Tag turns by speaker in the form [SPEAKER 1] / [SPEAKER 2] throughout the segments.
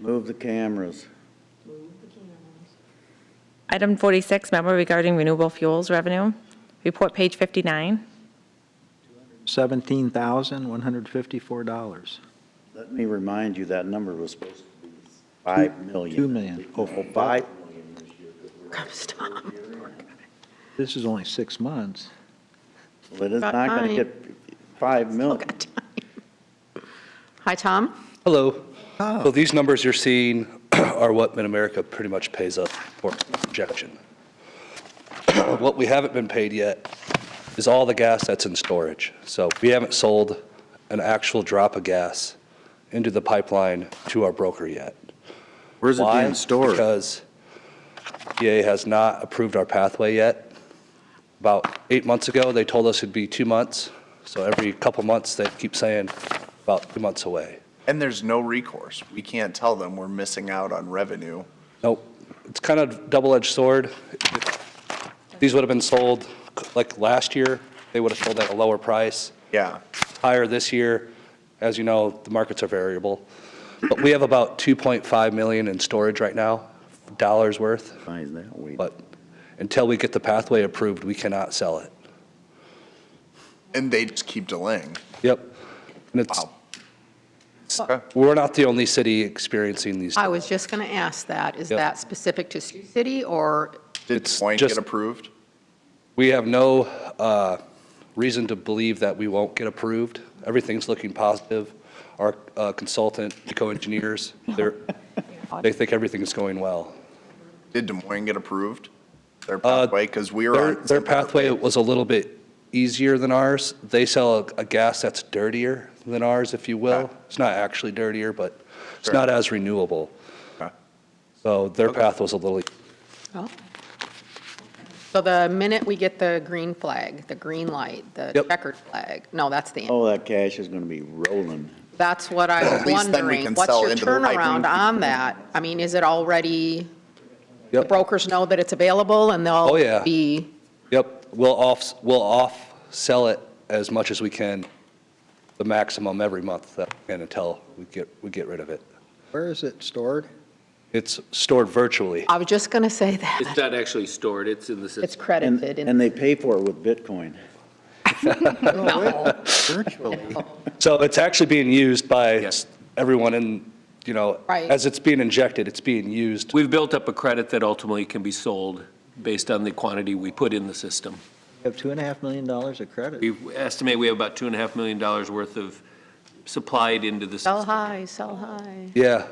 [SPEAKER 1] Move the cameras.
[SPEAKER 2] Item 46, memo regarding renewable fuels revenue. Report page 59.
[SPEAKER 3] $17,154.
[SPEAKER 1] Let me remind you, that number was supposed to be 5 million.
[SPEAKER 3] Two million.
[SPEAKER 1] Oh, oh, 5 million.
[SPEAKER 3] This is only six months.
[SPEAKER 1] But it's not going to get 5 million.
[SPEAKER 4] Hi, Tom.
[SPEAKER 5] Hello. So these numbers you're seeing are what Mid-America pretty much pays us for projection. What we haven't been paid yet is all the gas that's in storage. So we haven't sold an actual drop of gas into the pipeline to our broker yet.
[SPEAKER 6] Where's it
[SPEAKER 5] Why?
[SPEAKER 6] being stored?
[SPEAKER 5] Because EA has not approved our pathway yet. About eight months ago, they told us it'd be two months. So every couple months, they keep saying about two months away.
[SPEAKER 7] And there's no recourse. We can't tell them we're missing out on revenue.
[SPEAKER 5] Nope. It's kind of double-edged sword. These would have been sold, like last year, they would have sold at a lower price,
[SPEAKER 7] Yeah.
[SPEAKER 5] higher this year. As you know, the markets are variable. But we have about 2.5 million in storage right now, dollars worth,
[SPEAKER 1] Why is that weird?
[SPEAKER 5] but until we get the pathway approved, we cannot sell it.
[SPEAKER 7] And they just keep delaying.
[SPEAKER 5] Yep. And it's,
[SPEAKER 7] Wow.
[SPEAKER 5] we're not the only city experiencing these.
[SPEAKER 4] I was just going to ask that. Is
[SPEAKER 5] Yep.
[SPEAKER 4] that specific to Sioux City or,
[SPEAKER 7] Did
[SPEAKER 5] It's
[SPEAKER 7] Point
[SPEAKER 5] just-
[SPEAKER 7] get approved?
[SPEAKER 5] We have no uh, reason to believe that we won't get approved. Everything's looking positive. Our uh, consultant, Eco Engineers, they're, they think everything is going well.
[SPEAKER 7] Did Des Moines get approved? Their
[SPEAKER 5] Uh,
[SPEAKER 7] pathway, because we were
[SPEAKER 5] Their,
[SPEAKER 7] on.
[SPEAKER 5] their pathway was a little bit easier than ours. They sell a- a gas that's dirtier than ours, if you will.
[SPEAKER 7] Okay.
[SPEAKER 5] It's not actually dirtier, but it's
[SPEAKER 7] Sure.
[SPEAKER 5] not as renewable.
[SPEAKER 7] Okay.
[SPEAKER 5] So their
[SPEAKER 7] Okay.
[SPEAKER 5] path was a little,
[SPEAKER 4] well? So the minute we get the green flag, the green light, the
[SPEAKER 5] Yep.
[SPEAKER 4] checkered flag, no, that's the,
[SPEAKER 1] Oh, that cash is going to be rolling.
[SPEAKER 4] that's what I was
[SPEAKER 7] At least then we
[SPEAKER 4] wondering.
[SPEAKER 7] can
[SPEAKER 4] What's
[SPEAKER 7] sell
[SPEAKER 4] your
[SPEAKER 7] into the pipeline.
[SPEAKER 4] turnaround on that? I mean, is it already, the
[SPEAKER 5] yep,
[SPEAKER 4] brokers know that it's available and
[SPEAKER 5] Oh,
[SPEAKER 4] they'll
[SPEAKER 5] yeah.
[SPEAKER 4] be,
[SPEAKER 5] yep. We'll off, we'll off-sell it as much as we can, the maximum every month, that- and until we get, we get rid of it.
[SPEAKER 3] Where is it stored?
[SPEAKER 5] It's stored virtually.
[SPEAKER 4] I was just going to say
[SPEAKER 8] It's
[SPEAKER 4] that.
[SPEAKER 8] not actually stored, it's in the
[SPEAKER 4] It's
[SPEAKER 8] system.
[SPEAKER 1] And,
[SPEAKER 4] credited in
[SPEAKER 1] and they pay for it with Bitcoin.
[SPEAKER 3] Virtually.
[SPEAKER 5] So it's actually being used by
[SPEAKER 8] Yes.
[SPEAKER 5] everyone in, you know,
[SPEAKER 4] Right.
[SPEAKER 5] as it's being injected, it's being used.
[SPEAKER 8] We've built up a credit that ultimately can be sold based on the quantity we put in the system.
[SPEAKER 3] We have $2.5 million of credit.
[SPEAKER 8] We estimate we have about two and a half million dollars worth of supplied into the
[SPEAKER 4] Sell
[SPEAKER 8] system.
[SPEAKER 4] high, sell high.
[SPEAKER 5] Yeah.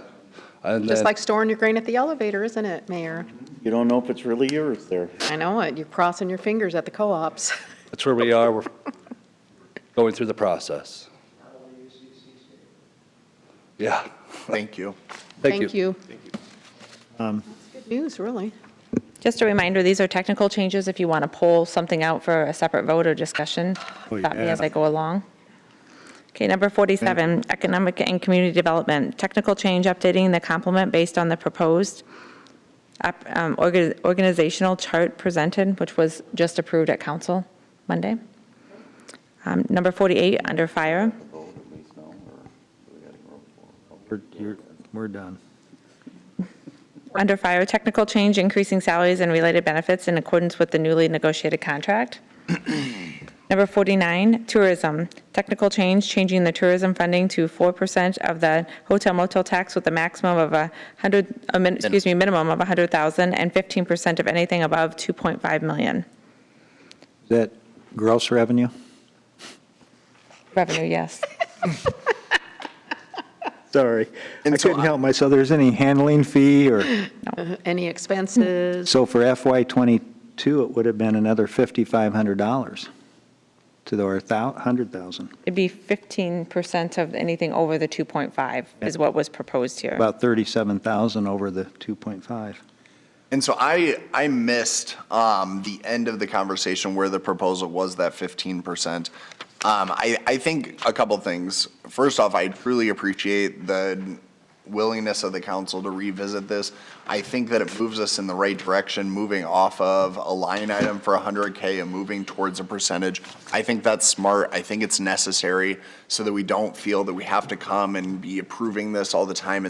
[SPEAKER 5] And
[SPEAKER 4] Just
[SPEAKER 5] then,
[SPEAKER 4] like storing your grain at the elevator, isn't it, Mayor?
[SPEAKER 1] You don't know if it's really yours there.
[SPEAKER 4] I know it. You're crossing your fingers at the co-ops.
[SPEAKER 5] that's where we are. We're going through the process. Yeah,
[SPEAKER 7] Thank you.
[SPEAKER 5] thank you.
[SPEAKER 4] Good news, really.
[SPEAKER 2] Just a reminder, these are technical changes. If you want to pull something out for a separate vote or discussion, stop me as I go along. Okay, number 47, economic and community development, technical change updating the complement based on the proposed op- um, orga- organizational chart presented, which was just approved at council Monday. Um, Number 48, under fire,
[SPEAKER 3] We're, you're, we're done.
[SPEAKER 2] Under fire, technical change, increasing salaries and related benefits in accordance with the newly negotiated contract. Number 49, tourism, technical change, changing the tourism funding to 4% of the hotel motel tax with a maximum of a 100, a min- excuse me, minimum of 100,000 and 15% of anything above 2.5 million.
[SPEAKER 3] Is that gross revenue?
[SPEAKER 2] Revenue, yes.
[SPEAKER 3] Sorry. I
[SPEAKER 7] And so
[SPEAKER 3] couldn't help myself. There's any handling fee or,
[SPEAKER 4] Any expenses?
[SPEAKER 3] so for FY '22, it would have been another $5,500 to the, or 100,000,
[SPEAKER 2] It'd be 15% of anything over the 2.5 is what was proposed here.
[SPEAKER 3] about 37,000 over the 2.5.
[SPEAKER 7] And so I, I missed um, the end of the conversation where the proposal was that 15%. Um, I, I think a couple things. First off, I truly appreciate the willingness of the council to revisit this. I think that it moves us in the right direction, moving off of a line item for 100K and moving towards a percentage. I think that's smart. I think it's necessary so that we don't feel that we have to come and be approving this all the time